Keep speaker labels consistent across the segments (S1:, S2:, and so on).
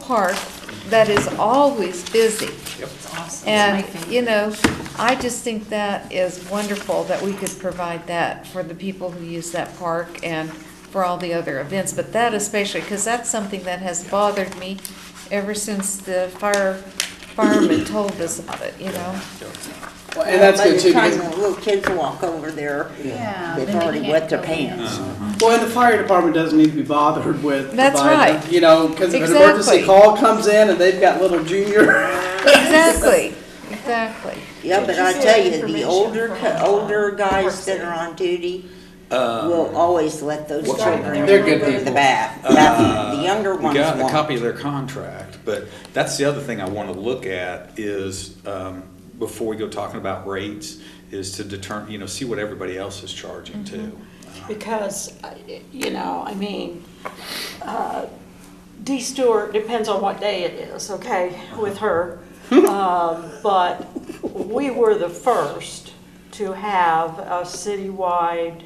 S1: park that is always busy.
S2: Awesome.
S1: And,
S2: It's my
S1: you
S2: favorite.
S1: know, I just think that is wonderful that we could provide that for the people who use that park and for all the other events, but that especially, because that's something that has bothered me ever since the fire, firemen told us about it, you know?
S3: Well, And that's good too,
S4: By the
S3: because,
S4: time the little kids walk over there,
S2: Yeah,
S4: they've
S2: then they
S4: already
S2: can't
S4: wet their
S2: go in.
S4: pants.
S5: Uh-huh.
S3: well, and the fire department doesn't need to be bothered with.
S1: That's
S3: providing-
S1: right.
S3: You know, because if an
S1: Exactly.
S3: emergency call comes in and they've got little junior,
S1: Exactly, exactly.
S4: Yeah, but I
S6: Did you
S4: tell you,
S6: see that
S4: the
S6: information
S4: older,
S6: from,
S4: co-
S6: uh,
S4: older guys that
S6: Parkson?
S4: are on duty
S5: Uh,
S4: will always let those
S5: What's
S4: children
S3: they're good
S4: in the
S3: people.
S4: bath.
S5: Uh,
S4: The younger ones
S5: Got a
S4: won't.
S5: copy of their contract, but that's the other thing I want to look at is, um, before we go talking about rates, is to determine, you know, see what everybody else is charging too.
S6: Because, uh, you know, I mean, uh, Dee Stewart, depends on what day it is, okay, with her. Um, But we were the first to have a citywide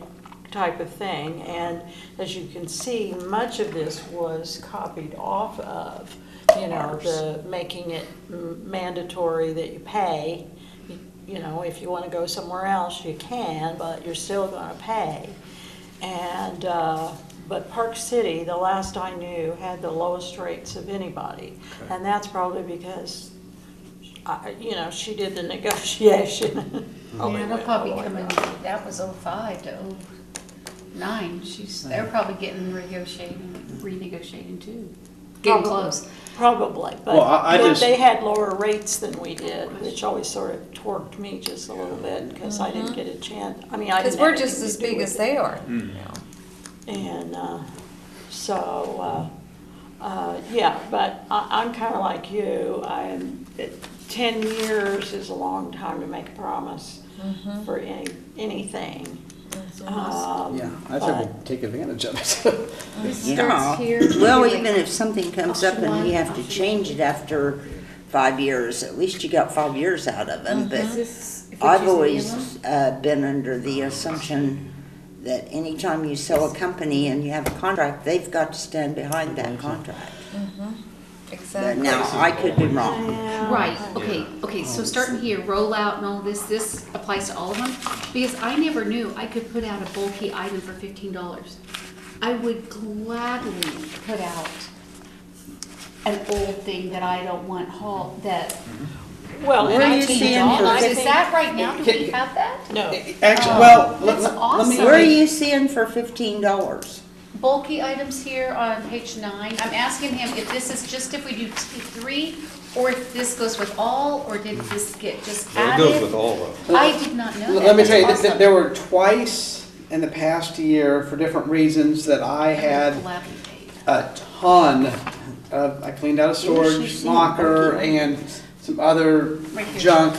S6: type of thing. And as you can see, much of this was copied off of, you know, the making it m- mandatory that you pay. You know, if you want to go somewhere else, you can, but you're still going to pay. And, uh, but Park City, the last I knew, had the lowest rates of anybody.
S5: Okay.
S6: And that's probably because, I- you know, she did the negotiation.
S3: Mm-hmm.
S6: Oh,
S2: Yeah,
S6: it
S2: they'll
S6: went all the
S2: probably
S6: way
S2: come in,
S6: up.
S2: that was oh five to oh nine, she's, they're probably getting renegotiating, renegotiating too. Getting
S6: Probably.
S2: close.
S6: Probably, but
S3: Well, I- I
S6: but
S3: just-
S6: they had lower rates than we did, which always sort of torqued me just a little bit because I didn't get a chance. I mean, I
S1: Mm-hmm. Because
S6: didn't.
S1: we're
S6: have
S1: just as
S6: anything to do
S1: big
S6: with
S1: as
S6: it.
S1: they are.
S2: Mm.
S6: And uh, so, uh, uh, yeah, but I, I'm kind of like you. I'm, it- 10 years is a long time to make a promise
S4: Mm-hmm.
S6: for any, anything. Um,
S3: yeah, I think we take advantage of it.
S4: Yeah.
S2: Starts here,
S4: Well,
S2: maybe
S4: even
S2: like-
S4: if something comes up
S2: Option
S4: and we
S2: one,
S4: have to
S2: option
S4: change it after five years, at least you got five years out of them, but.
S2: Mm-hmm.
S6: Is this- if we choose
S4: I've
S6: the
S4: always
S6: yellow?
S4: uh, been under the assumption that anytime you sell a company and you have a contract, they've got to stand behind that contract. But
S1: Exactly.
S4: now, I could be wrong.
S2: Right, okay, okay, so starting here, rollout and all this, this applies to all of them? Because I never knew I could put out a bulky item for fifteen dollars. I would gladly put out an old thing that I don't want hauled, that.
S6: Well, and
S4: Where
S6: I
S4: you
S6: think-
S4: seeing for
S6: I
S2: Is
S6: think-
S2: that right now, do we have that?
S6: No.
S3: Actually, well, let
S2: That's
S3: let- let me.
S2: awesome.
S4: Where are you seeing for fifteen dollars?
S2: bulky items here on page nine. I'm asking him if this is just if we do T three, or if this goes with all, or did this get just
S5: It goes with
S2: added?
S5: all of them.
S2: I did not know that.
S3: Let me tell you,
S2: That's
S3: th- th-
S2: awesome.
S3: there were twice in the past year, for different reasons, that I had
S2: Eleven eight.
S3: a ton of, I cleaned out a storage locker and some other
S2: Right here.
S3: junk.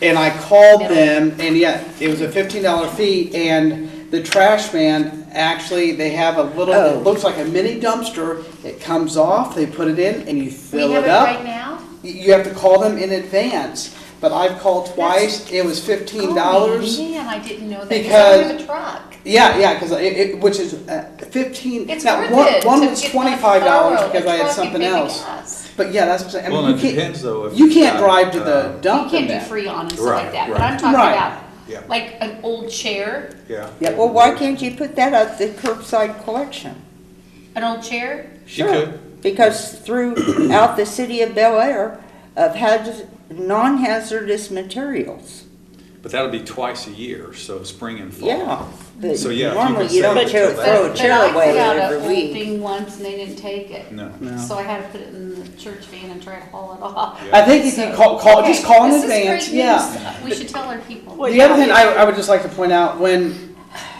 S3: And I called them and yet it was a fifteen dollar fee and the trash man, actually, they have a little,
S4: Oh.
S3: it looks like a mini dumpster. It comes off, they put it in and you
S2: We
S3: fill
S2: have
S3: it
S2: it right
S3: up.
S2: now?
S3: You you have to call them in advance, but I've called twice, it was fifteen dollars.
S2: Oh, man, I didn't know that, 'cause I don't have a truck.
S3: Yeah, yeah, because it, it, which is uh, fifteen.
S2: It's
S3: now,
S2: worth
S3: one,
S2: it.
S3: one
S2: to
S3: was
S2: get my
S3: twenty five dollars
S2: thorough
S3: because I had
S2: truck and
S3: something
S2: maybe
S3: else.
S2: gas.
S3: But yeah, that's what I'm saying. I mean,
S5: Well,
S3: you
S5: it
S3: can't,
S5: depends though. if
S3: You
S5: you've
S3: can't
S5: got,
S3: drive to
S5: uh,
S3: the
S2: You
S3: dump. in
S2: can't do
S3: that.
S2: free on and stuff like
S5: Right,
S2: that, but
S5: right.
S2: I'm talking
S3: Right.
S5: Yeah.
S2: about, like, an old chair,
S5: Yeah.
S3: Yeah,
S4: Well, why can't you put that at the curbside collection?
S2: an old chair,
S5: She could.
S4: Because throughout the city of Bel Air, of haz non-hazardous materials.
S5: But that'll be twice a year, so spring and fall.
S4: Yeah, but
S5: So, yeah, if you
S4: normally
S5: can
S4: you don't
S5: save it
S4: tear-
S5: till
S4: throw
S5: that-
S4: a
S2: But I
S4: chair away
S2: put out a
S4: every
S2: old
S4: week.
S2: thing once and they didn't take it.
S5: No.
S2: So I had to put it in the church van and try to haul it off.
S5: Yeah.
S3: I think if you call, call just call in
S2: This is great
S3: advance.
S2: news.
S3: Yeah.
S2: We should tell our people.
S6: Well,
S3: The other thing I, I would just like to point out when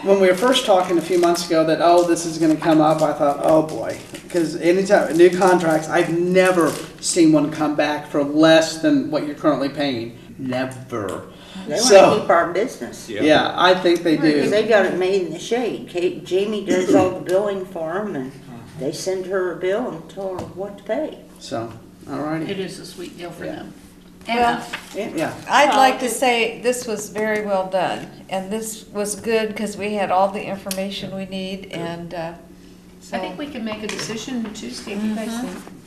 S3: when we were first talking a few months ago that oh this is going to come up, I thought oh boy because anytime new contracts, I've never seen one come back for less than what you're currently paying. Never.
S4: They wanna
S3: So
S4: keep our business.
S5: Yeah.
S3: yeah, I think they do.
S4: Because they got it made in the shade. Kate, Jamie does all the billing for them and they send her a bill and tell her what to pay.
S3: So, alrighty.
S2: is a sweet deal for them.
S1: Well,
S3: Yeah,
S2: Oh.
S1: I'd like to say this was very well done, and this was good because we had all the information we need, and, uh,
S2: I think
S1: so,
S2: we can make a decision Tuesday, if you guys think.